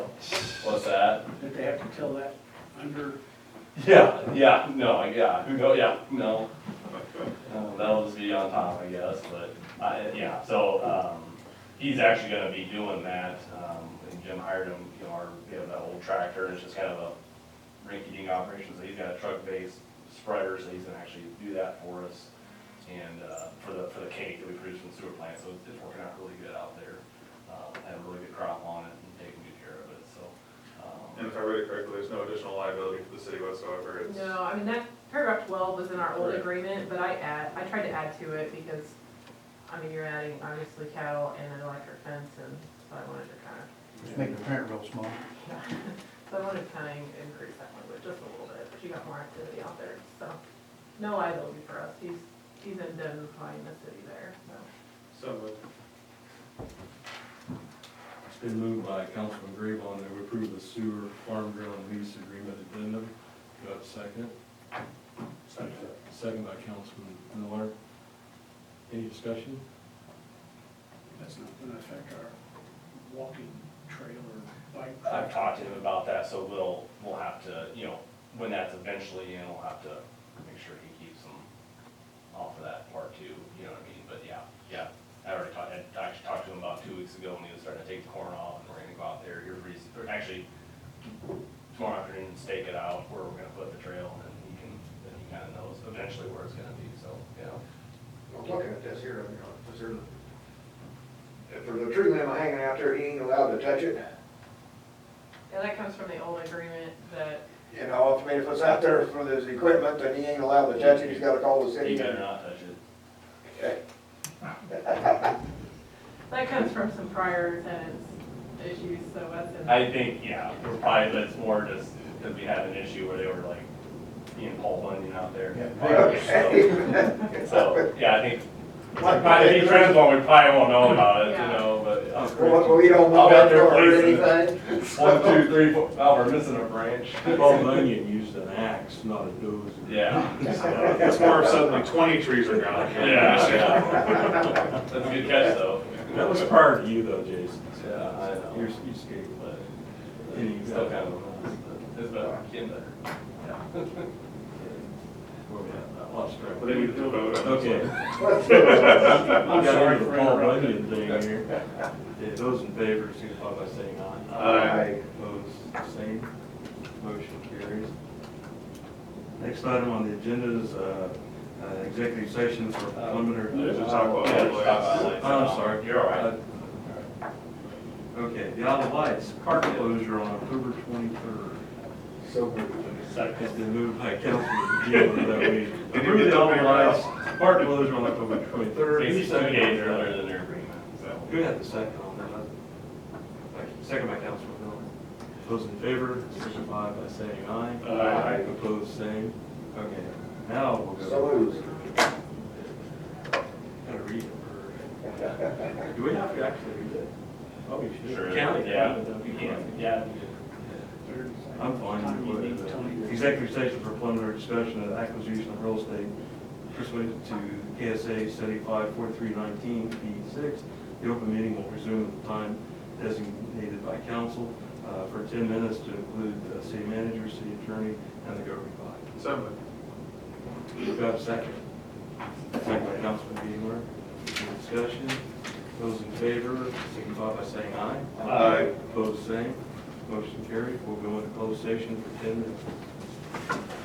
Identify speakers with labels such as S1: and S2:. S1: What's that?
S2: Did they have to tell that under,
S1: Yeah, yeah, no, yeah, who go, yeah, no. Uh, That'll just be on top, I guess, but, I, yeah, so, um, he's actually gonna be doing that, um, and Jim hired him, you know, our, we have that old tractor, and it's just kind of a rinky-dink operation, so he's got a truck-based spreader, so he's gonna actually do that for us. And, uh, for the, for the cake that we produce from the sewer plant, so it's- it's working out really good out there. Uh, had a really good crop on it and taking good care of it, so. um,
S3: And if I read it correctly, there's no additional liability for the city whatsoever, it's.
S4: No, I mean, that paragraph twelve was in our old
S3: Right.
S4: agreement, but I add, I tried to add to it because, I mean, you're adding obviously cattle and an electric fence and so I wanted to kind of,
S5: Make the print real small.
S4: so I wanted to kind of increase that language just a little bit, but you got more activity out there, so. No liability for us, he's, he's indemnifying the city there, so.
S3: So moved.
S6: It's been moved by Councilman Graybon that we approve the sewer farm ground lease agreement addendum. Do I have a second? Second. Second by Councilman Miller. Any discussion?
S2: that's not gonna affect our walking trail or bike?
S1: I've talked to him about that, so we'll, we'll have to, you know, when that's eventually in, we'll have to make sure he keeps them off of that part too, you know what I mean, but yeah, yeah. I already talked, I actually talked to him about two weeks ago when he was starting to take the corn off, and we're gonna go out there, here pretty, or actually, tomorrow afternoon, stake it out, where we're gonna put the trail, and he can, then he kinda knows eventually where it's gonna be, so, you know.
S7: I'm looking at this here, you know, is there, if there's a tree limb hanging out there, he ain't allowed to touch it.
S4: Yeah, that comes from the old agreement that,
S7: You know, if- I mean, if it's out there for his equipment, then he ain't allowed to touch it, he's gotta call the
S1: He
S7: city.
S1: better not touch it.
S7: Okay.
S4: that comes from some prior tenants issues, so that's in.
S1: I think, yeah, we're probably, but it's more just because we had an issue where they were like being Paul Bunyan out there. So- So, yeah, I think, like, probably, if he trends one, we probably won't know about it, you know,
S7: Oh,
S1: but.
S7: Well, we don't
S1: I'll
S7: know
S1: be out
S7: that
S1: there
S7: or
S1: policing it.
S7: anything.
S1: One, two, three, four, oh, we're missing a branch.
S6: Paul Bunyan used an axe, not a dozer.
S1: Yeah,
S3: It's more if suddenly twenty trees are gone.
S1: yeah, yeah. That's a good catch, though.
S6: That was prior to you though, Jason.
S1: Yeah, I know.
S6: You're, you skated, but.
S1: It's Still kind of, a mess, but it's better, getting better.
S6: Where we at? I lost track.
S3: But then we do vote on this
S6: Okay.
S3: one.
S2: sorry
S6: I'm sorry
S2: for
S6: for Paul Bunyan thing here. Yeah, Those in favor, signify by saying aye.
S3: Aye.
S6: Opposed, same. Motion carries. Next item on the agenda is uh, uh, executive session for preliminary. Oh,
S3: There's a talk about-
S1: Yeah, just talk about it.
S6: I'm sorry. Uh,
S1: You're all right.
S6: Okay, the Isle of Lights, park closure on October 23rd.
S7: So moved.
S6: It's been moved by Councilman Gill that we
S3: Did you
S6: approve
S3: get
S6: the
S3: that
S6: Isle of
S3: figured
S6: Lights, park closure on October 23rd.
S1: Basically, two days earlier than their agreement, so.
S6: Who had the second on that? Second by Councilman Miller. Those in favor, signify by saying aye.
S3: Aye.
S6: Opposed, same. Okay, now we'll go.
S7: So moved.
S6: Gotta read it. or- Do we have to actually read it? Oh, we should.
S1: Sure,
S6: County,
S1: yeah.
S6: that'd be fine.
S1: Yeah.
S6: I'm fine.
S2: Time you
S6: with
S2: need, Tony.
S6: whatever. Executive session for preliminary discussion of acquisition of real estate pursuant to KSA seventy-five forty-three nineteen P six. The open meeting will resume at the time designated by council uh, for ten minutes to include the city manager, city attorney, and the governing body.
S3: So moved.
S6: Do I have a second? Second by Councilman Beamer. Any discussion? Those in favor, signify by saying aye.
S3: Aye.
S6: Opposed, same. Motion carried. We'll go into closed session for ten minutes.